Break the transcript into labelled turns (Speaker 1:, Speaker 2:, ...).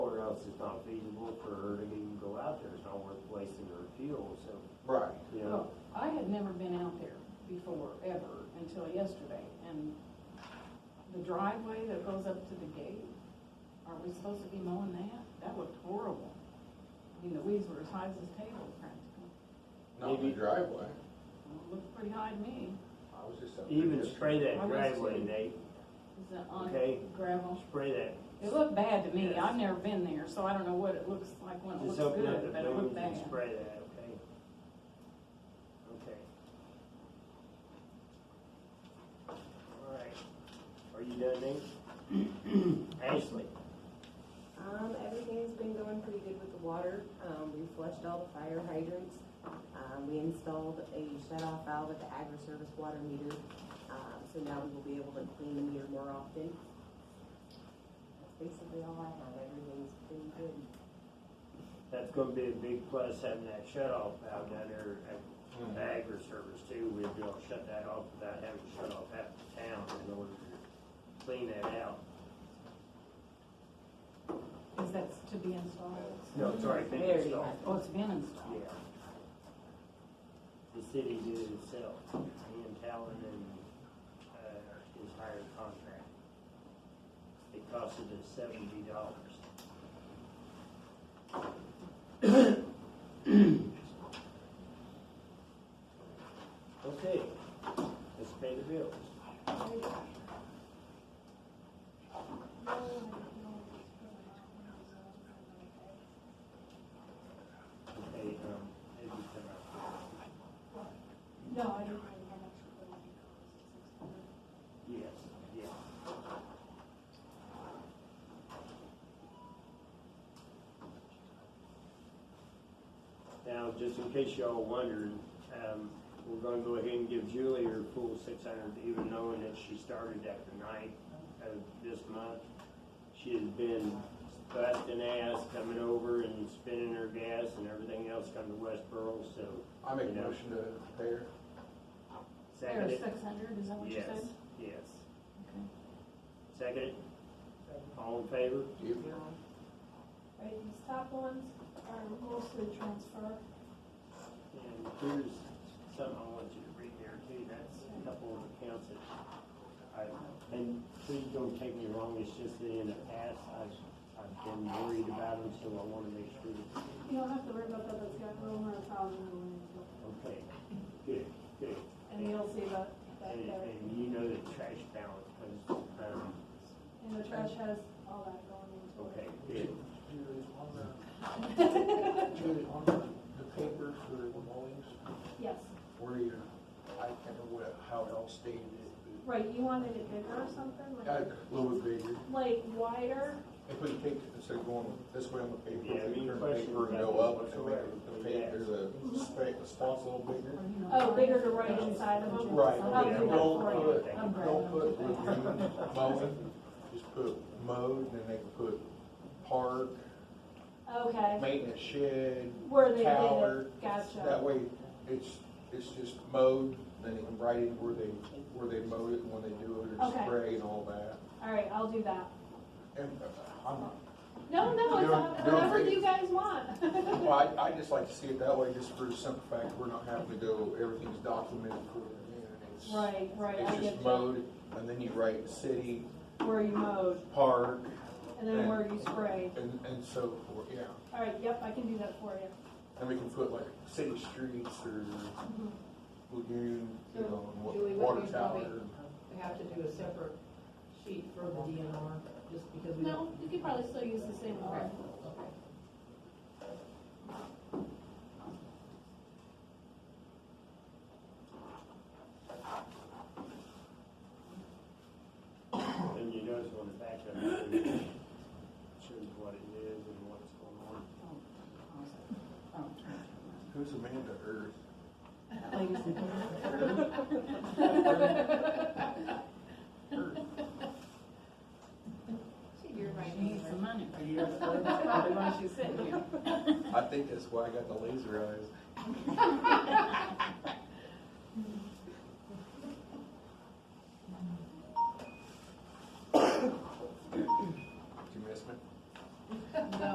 Speaker 1: out there is not worth wasting their fuel, so,
Speaker 2: Right.
Speaker 1: you know.
Speaker 3: Well, I had never been out there before, ever, until yesterday, and the driveway that goes up to the gate, are we supposed to be mowing that? That looked horrible. I mean, the weeds were as high as this table practically.
Speaker 2: Not in the
Speaker 1: Maybe-
Speaker 2: driveway.
Speaker 3: Well, It looked pretty high to me.
Speaker 2: I was just. up there
Speaker 1: Even
Speaker 2: just-
Speaker 1: spray that
Speaker 3: I was
Speaker 1: driveway,
Speaker 3: too.
Speaker 1: Nate,
Speaker 3: Is it on
Speaker 1: Okay.
Speaker 3: gravel?
Speaker 1: spray that.
Speaker 3: It looked bad to me.
Speaker 1: Yes.
Speaker 3: I've never been there, so I don't know what it looks like when it looks
Speaker 1: Just open up the
Speaker 3: good, but it
Speaker 1: booms
Speaker 3: looked
Speaker 1: and
Speaker 3: bad.
Speaker 1: spray that, okay? Okay. All right. Are you done, Nate? Ashley?
Speaker 4: Um, everything's been going pretty good with the water. Um, we flushed all the fire hydrants. Um, we installed a shut-off valve at the agri-service water meter. Um, so now we will be able to clean the meter more often. That's basically all I have. Everything's been good.
Speaker 1: That's gonna be a big plus having that shut off valve down there at
Speaker 2: Mhm.
Speaker 1: the agri service too. We'd be able to shut that off without having to shut off half the town in order to clean that out.
Speaker 3: Is that to be installed?
Speaker 1: No, it's already been
Speaker 4: Very
Speaker 1: installed.
Speaker 4: nice.
Speaker 3: Oh, it's been
Speaker 1: Yeah.
Speaker 3: installed.
Speaker 1: The city did it itself, Ian Talon and, uh, his hired contract. It costed us seventy dollars. Okay, let's pay the bills. Okay, um, maybe come out.
Speaker 5: No, I didn't really have much of a money cost.
Speaker 1: Yes, yes. Now, just in case y'all wondered, um, we're gonna go ahead and give Julie her full six hundred, even knowing that she started at the ninth of this month. She has been busting ass coming over and spending her gas and everything else coming to Westboro, so.
Speaker 2: I make a
Speaker 1: you know,
Speaker 2: motion to pay her.
Speaker 3: There,
Speaker 1: Second it?
Speaker 3: six hundred, is that what you
Speaker 1: Yes,
Speaker 3: said?
Speaker 1: yes.
Speaker 3: Okay.
Speaker 1: Second it? All in favor?
Speaker 2: You-
Speaker 5: Right, these top ones are mostly transfer.
Speaker 1: And here's something I want you to read there too, that's a couple of accounts that I, and please don't take me wrong, it's just that in the past, I've, I've been worried about them, so I wanna make sure that,
Speaker 5: You don't have to worry about that, that's got over a thousand in it.
Speaker 1: okay, good, good.
Speaker 5: And you'll see that, that
Speaker 1: And,
Speaker 5: there.
Speaker 1: and you know the trash balance, cause, um,
Speaker 5: And the trash has all that going into it.
Speaker 1: okay, good.
Speaker 6: Julie, on the, Julie, on the, the paper for the mowings,
Speaker 5: Yes,
Speaker 2: Where you, I can't remember what- how it all stated it,
Speaker 5: right, you wanted it bigger or something,
Speaker 2: but got
Speaker 5: like,
Speaker 2: it a little bit bigger.
Speaker 5: like wider?
Speaker 2: If we take, instead of going this way on the paper,
Speaker 1: Yeah, I
Speaker 2: we
Speaker 1: mean,
Speaker 2: turn the
Speaker 1: question
Speaker 2: paper and
Speaker 1: about
Speaker 2: go up,
Speaker 1: this
Speaker 2: and make it-
Speaker 1: whatsoever.
Speaker 2: the paper, there's a space, a spot a little bigger.
Speaker 3: Or, you know,
Speaker 5: Oh, bigger to right inside of them?
Speaker 2: Right,
Speaker 5: I'll
Speaker 2: yeah,
Speaker 5: do that
Speaker 2: don't
Speaker 5: for you.
Speaker 2: put,
Speaker 3: I'm grabbing
Speaker 2: don't put
Speaker 3: them.
Speaker 2: lagoon mowing, just put mowed, and then they can put park,
Speaker 5: Okay,
Speaker 2: maintenance shed,
Speaker 5: where they did
Speaker 2: tower.
Speaker 5: it, gotcha.
Speaker 2: That way, it's, it's just mowed, then you can write in where they, where they mowed it, and when they do it,
Speaker 5: Okay.
Speaker 2: or spray and all that.
Speaker 5: All right, I'll do that.
Speaker 2: And uh, I'm not,
Speaker 5: No, no,
Speaker 2: You
Speaker 5: it's
Speaker 2: don't-
Speaker 5: not-
Speaker 2: you don't
Speaker 5: whatever
Speaker 2: think-
Speaker 5: you guys want.
Speaker 2: well, I, I just like to see it that way, just for the simple fact, we're not having to go, everything's documented for it. and it's-
Speaker 5: Right, right, I
Speaker 2: It's
Speaker 5: get
Speaker 2: just
Speaker 5: you.
Speaker 2: mowed, and then you write city,
Speaker 5: Where you mowed,
Speaker 2: park,
Speaker 5: and then where you sprayed.
Speaker 2: and, and so forth, yeah.
Speaker 5: All right, yep, I can do that for you.
Speaker 2: And we can put like city streets or
Speaker 5: Mhm.
Speaker 2: lagoon, you know, and wa-
Speaker 7: Julie, what do
Speaker 2: water
Speaker 7: you
Speaker 2: tower.
Speaker 7: Uh, We have to do a separate sheet for the DNR, just because we don't.
Speaker 3: No, you could probably still use the same
Speaker 7: Okay,
Speaker 3: one.
Speaker 7: okay.
Speaker 1: And you notice on the back of it, it shows what it is and what's going on.
Speaker 2: Who's Amanda Earth?
Speaker 3: Oh. She needs some money.
Speaker 2: Yes.
Speaker 3: That's probably why she's sitting here.
Speaker 2: I think that's why I got the laser eyes.